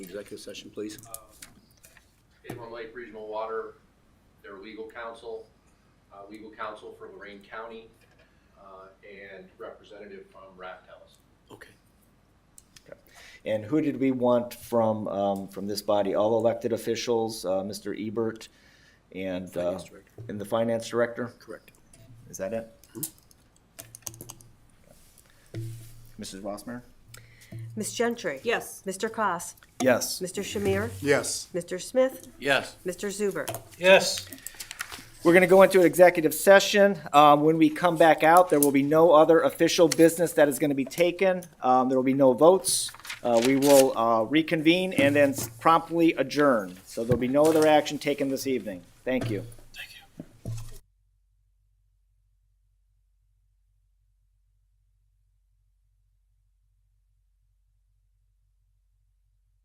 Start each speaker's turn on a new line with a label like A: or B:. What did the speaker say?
A: Executive session, please.
B: Avon Lake Regional Water, their legal counsel, uh, legal counsel for Lorraine County, uh, and representative from Raftels.
A: Okay.
C: And who did we want from, um, from this body? All elected officials, uh, Mr. Ebert and, uh,
A: Finance director.
C: and the finance director?
A: Correct.
C: Is that it?
A: Mm-hmm.
C: Mrs. Rossmarin?
D: Ms. Gentry?
E: Yes.
D: Mr. Cos?
C: Yes.
D: Mr. Shamir?
F: Yes.
D: Mr. Smith?
B: Yes.
D: Mr. Zuber?
F: Yes.
C: We're gonna go into an executive session. Um, when we come back out, there will be no other official business that is gonna be taken. Um, there will be no votes. Uh, we will, uh, reconvene and then promptly adjourn. So there'll be no other action taken this evening. Thank you.